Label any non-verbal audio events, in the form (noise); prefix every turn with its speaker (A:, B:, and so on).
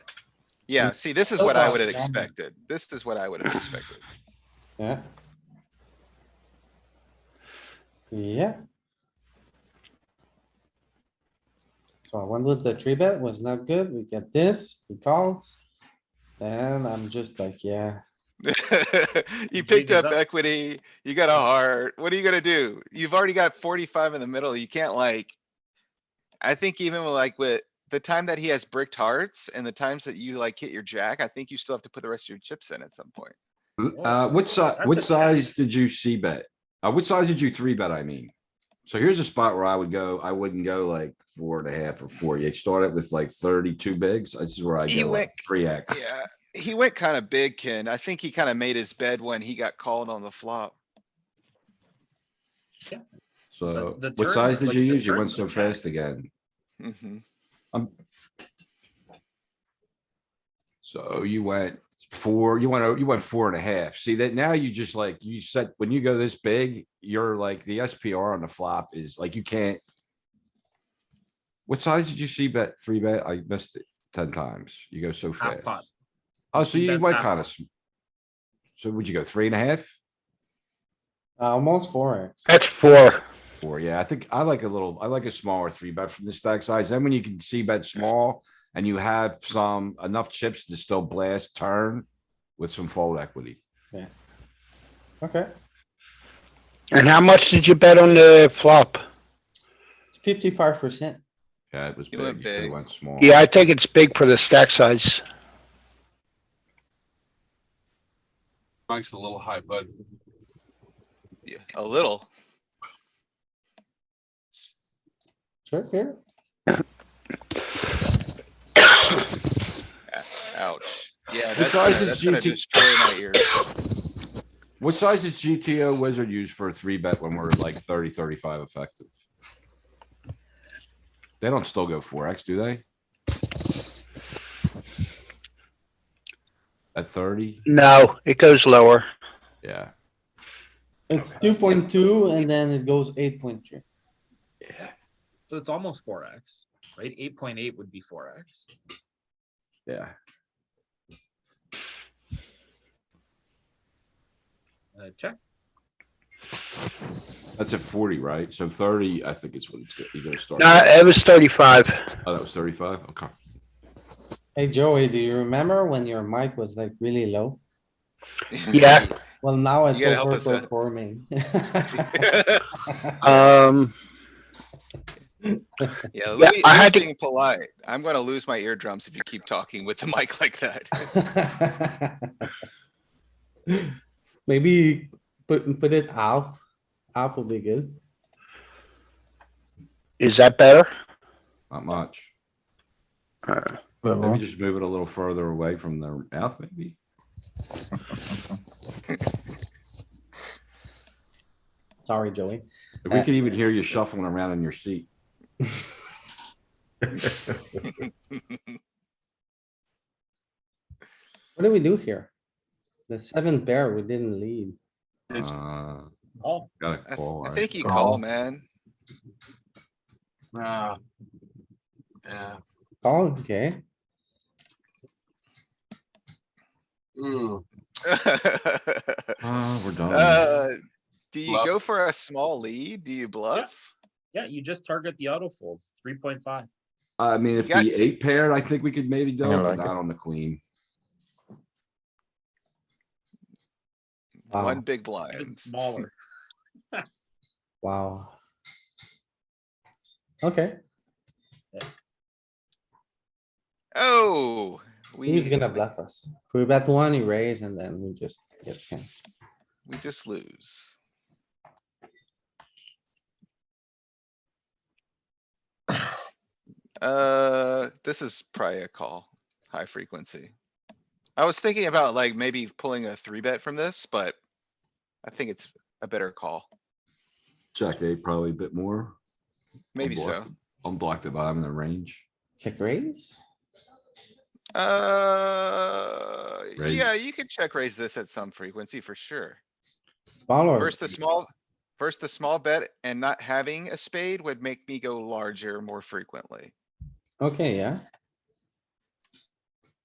A: Yeah,
B: Mm.
A: see, this is
B: So
A: what I
B: far,
A: would have
B: yeah.
A: expected. This is what I (clears throat) would have expected. (laughs)
B: Yeah. Yeah. So I went with the three bet was not good. We get this, he calls. And I'm just like, yeah,
A: You
C: jig
A: picked
C: is
A: up
C: up.
A: equity, you got a heart. What are you gonna do? You've already got forty-five in the middle. You can't like. I think even like with the time that he has bricked hearts and the times that you like hit your jack, I think you still have to put the rest of your chips in at some point.
D: Mm,
C: Oh,
D: Uh, what size,
C: that's
D: what
C: a
D: size did you see bet? Uh, what size did you three bet, I mean? So here's a spot where I would go, I wouldn't go like four and a half or four. You start it with like thirty-two bigs. This is where I
A: He
D: go
A: went-
D: like three X.
A: Yeah, he went kinda big, Ken. I think he kinda made his bed when he got called on the flop.
D: So
C: the
D: what
C: turn-
D: size did
C: like,
D: you
C: the
D: use? You
C: turn
D: went
C: was
D: so
C: a jack.
D: fast again.
A: Mhm.
D: So you went four, you went, o- you went four and a half. See that now you just like, you set, when you go this big, you're like, the SPR on the flop is like, you can't. What size did you see bet? Three bet? I missed it ten times. You go so
C: Half
D: fast.
C: pot.
D: Oh,
C: You
D: so
C: see
D: you
C: bet's
D: went
C: half
D: kind of.
C: pot.
D: So would you go three and a half?
B: almost four X.
E: That's four.
D: Four, yeah, I think I like a little, I like a smaller three bet from the stack size. Then when you can see bet small and you have some enough chips to still blast turn with some fold equity.
B: Okay,
E: And how much did you bet on the flop?
B: it's fifty-five percent.
D: Yeah, it was
A: You went
D: big. It
A: big.
D: went small.
E: Yeah, I think it's big for the stack size.
F: Mike's a little high, but
A: Yeah, A little.
B: Sure, here.
A: Ouch. Yeah,
D: What
A: that's gonna,
D: size is
A: that's gonna
D: GT?
A: destroy my ears. (laughs)
D: What size is GTO wizard use for a three bet when we're like 30, 35 effective? They don't still go four X, do they? At thirty?
E: No, it goes lower.
D: Yeah.
B: It's two point two and then it goes eight point three.
C: So it's almost four X, right? Eight point eight would be four X.
D: Yeah.
C: Uh, check.
D: That's at forty, right? So thirty, I think it's what it's, go- you gonna start.
E: No, it was thirty-five.
D: Oh, that was thirty-five? Okay.
B: Hey Joey, do you remember when your mic was like really low?
E: Yeah.
B: Well, now it's
A: gotta help us out.
B: overperforming.
A: (laughs)
E: Um,
A: Yeah,
E: Yeah,
A: Louis,
E: I
A: Louis
E: had to-
A: being polite. I'm gonna lose my eardrums if you keep talking with the (laughs) mic like that.
B: (laughs) Maybe put, put it half, half would be good.
E: is that better?
D: Not much.
E: Uh,
B: Uh-huh.
D: Maybe just move it a little further away from the mouth, maybe?
B: Sorry, Joey.
D: If we
B: Uh,
D: could even hear you shuffling around in your seat.
B: What do we do here? The seventh pair, we didn't lead.
F: it's
D: Uh,
C: Oh,
D: Got
A: I
D: a
A: th-
D: call.
A: I
D: right?
A: think you call,
F: Call.
A: man.
F: uh, yeah.
B: Oh, okay.
F: Mm.
D: Uh, we're done.
A: (laughs) Uh, Do you go
F: Bluff.
A: for a small lead? Do you bluff?
C: yeah, you just target the auto folds, three point five.
D: I mean, if
A: you got
D: the
A: to-
D: eight paired, I think we could maybe go,
G: I
D: but
G: like
D: not on the queen.
B: Wow.
A: One
B: Um,
A: big
C: Even
A: blind.
C: smaller.
B: Wow. Okay,
A: Oh, we,
B: he's gonna
A: we
B: bluff us. If we bet one, he raise and then we just get scammed.
A: just lose. Uh, this is probably a call, high frequency. I was thinking about like maybe pulling a three bet from this, but I think it's a better call.
D: Check eight, probably a bit more.
A: Maybe so.
D: block. Unblocked at bottom in the range.
B: Check raise?
A: Uh,
D: Raise.
A: yeah, you could check raise this at some frequency for sure.
B: Smaller.
A: First the small, first the small bet and not having a spade would make me go larger more frequently.
B: Okay, yeah,